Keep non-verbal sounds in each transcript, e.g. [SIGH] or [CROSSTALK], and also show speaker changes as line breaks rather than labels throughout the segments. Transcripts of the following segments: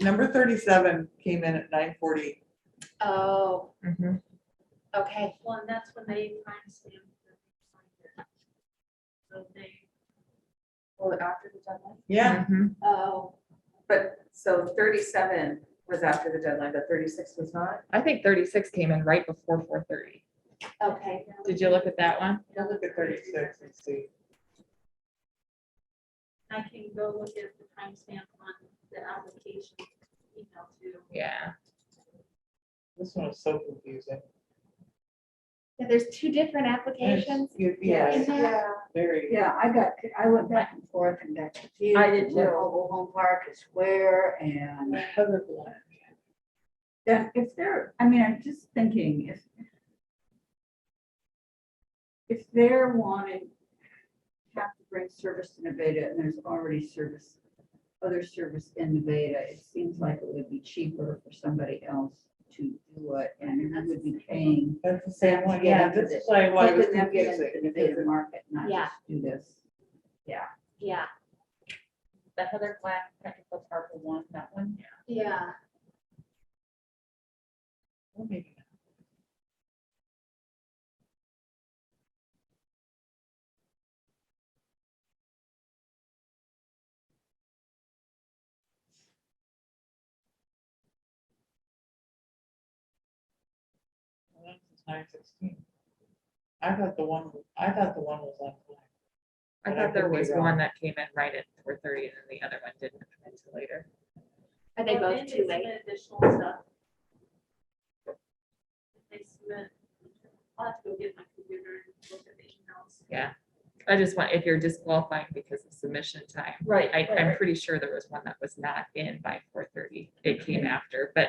number thirty-seven came in at nine forty.
Oh, okay.
Well, and that's when they timestamp. the calendar. So they,
Well, after the deadline?
Yeah,
Mm-hmm.
oh,
But, so thirty-seven was after the deadline, but thirty-six was not?
I think thirty-six came in right before four thirty.
okay. now
Did you look at that one?
go look at thirty-six and see.
I can go look at the timestamp on the application email too.
Yeah.
This one is so confusing.
Yeah, there's two different applications.
Yeah,
Yeah.
Yeah,
very.
yeah, I got, I went back and forth and got confused.
I did
Where
too.
Mobile home park is where and
Heather Glenn.
then if they're, I mean, I'm just thinking if if they're wanting, have to bring service to Nevada and there's already service, other service in Nevada, it seems like it would be cheaper for somebody else to do it and you would be paying.
That's the same one, yeah, this is why why it was
helping them get into
confusing.
the Nevada market, not
Yeah.
just do this.
Yeah,
The Heather Glenn Technical Park one, that one?
yeah.
We'll make it. Well, that's just 9:16. I thought the one, I thought the one was on time.
I
But I
thought there
could be
was
wrong.
one that came in right at four thirty and then the other one didn't come in until later.
Are they
Well,
both
then
too
they
late?
submit Additional stuff. If They submit, I'll have to go get my computer and look at the emails.
I just want, if you're disqualifying because of submission time,
Right.
I, I'm pretty sure there was one that was not in by four thirty. It came after, but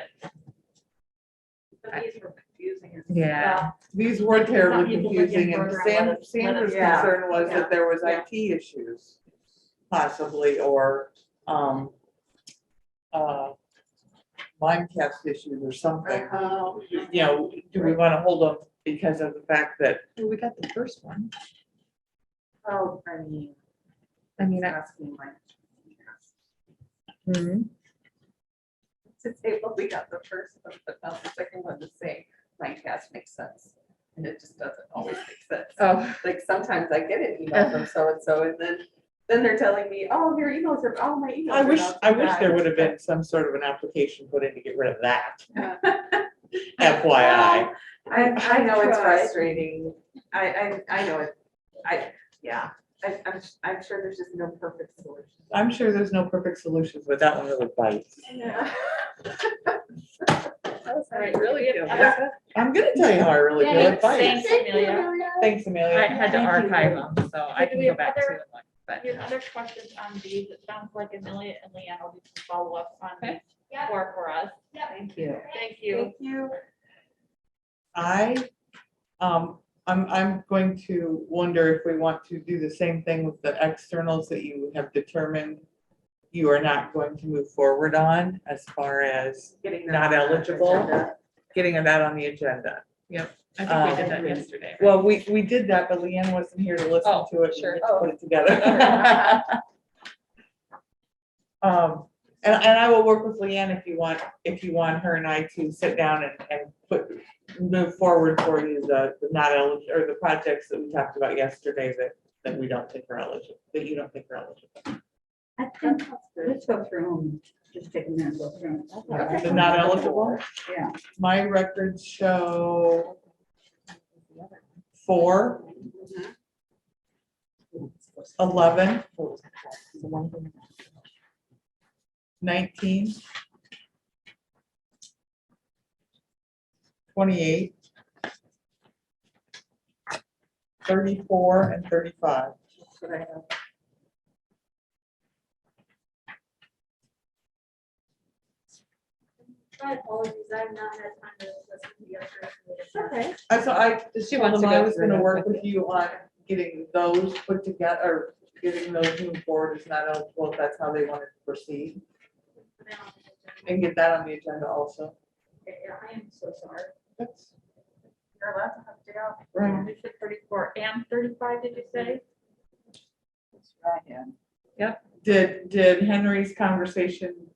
But these were confusing. as-
yeah,
These were
Some
terribly
people would get
confusing and
further on
Sam,
with it.
Sandra's
Yeah.
concern was
Yeah.
that there was
Yeah.
IT issues possibly, or, um, uh, Mimecast issues or something.
Oh,
You know, do we want to hold them because of the fact that,
Well, we got the first one.
Oh, I mean,
I mean, I-
asking like.
Mhm.
To say, well, we got the first one, but not the second one to say, my cast makes sense. And it just doesn't always make sense.
oh,
like sometimes I get an email from so and so and then, then they're telling me, oh, your emails are, all my e-" emails.
I
are
wish,
not
I wish there
back."
would have been some sort of an application put in to get rid of
[LAUGHS]
that.
Yeah.
FYI,
I, I know it's
Tried.
frustrating. I, I, I know it. I, yeah, I, I'm, I'm sure there's just no perfect solution.
I'm sure there's no perfect solutions, but that one really bites.
[LAUGHS]
Yeah.
I really, it
I'm gonna tell you how I really feel, it bites.
Thanks, Amelia.
Thanks, Amelia.
I had to
Thank you.
archive them, so I
Did
can
we
go
have
back to
other-
it. But
Your other questions on these, it sounds like Amelia and Leanne will do some follow-up on these
Okay.
Yeah.
for, for us.
Thank you.
Thank you.
you.
I, um, I'm, I'm going to wonder if we want to do the same thing with the externals that you have determined you are not going to move forward on as far as
Getting them
not
on the
eligible,
agenda.
getting that on the agenda.
I think we did
Um,
that yesterday. right?
Well, we, we did that, but Leanne wasn't here to listen
Oh,
to it.
sure.
We just Put it together. [LAUGHS] Um, and, and I will work with Leanne if you want, if you want her and I to sit down and, and put, move forward for you the, the not eligible, or the projects that we talked about yesterday that, that we don't think are eligible, that you don't think are eligible.
I think, let's go through them, just take a minute, go through them.
The not eligible?
Yeah.
My records show four, eleven, nineteen, twenty-eight, thirty-four, and thirty-five.
That's what I have.
My apologies, I've not had time to listen to the other.
Okay.
I so I,
She
she
wants
wants
to
I
go
was
through
gonna
it
work
with
with you on getting those put together, or getting those moved forward is not eligible, if that's how they wanted to proceed, and get that on the agenda also.
I am so sorry.
That's
You're allowed to have day off.
right.
You said thirty-four and thirty-five, did you say?
That's right, yeah.
Did, did Henry's conversation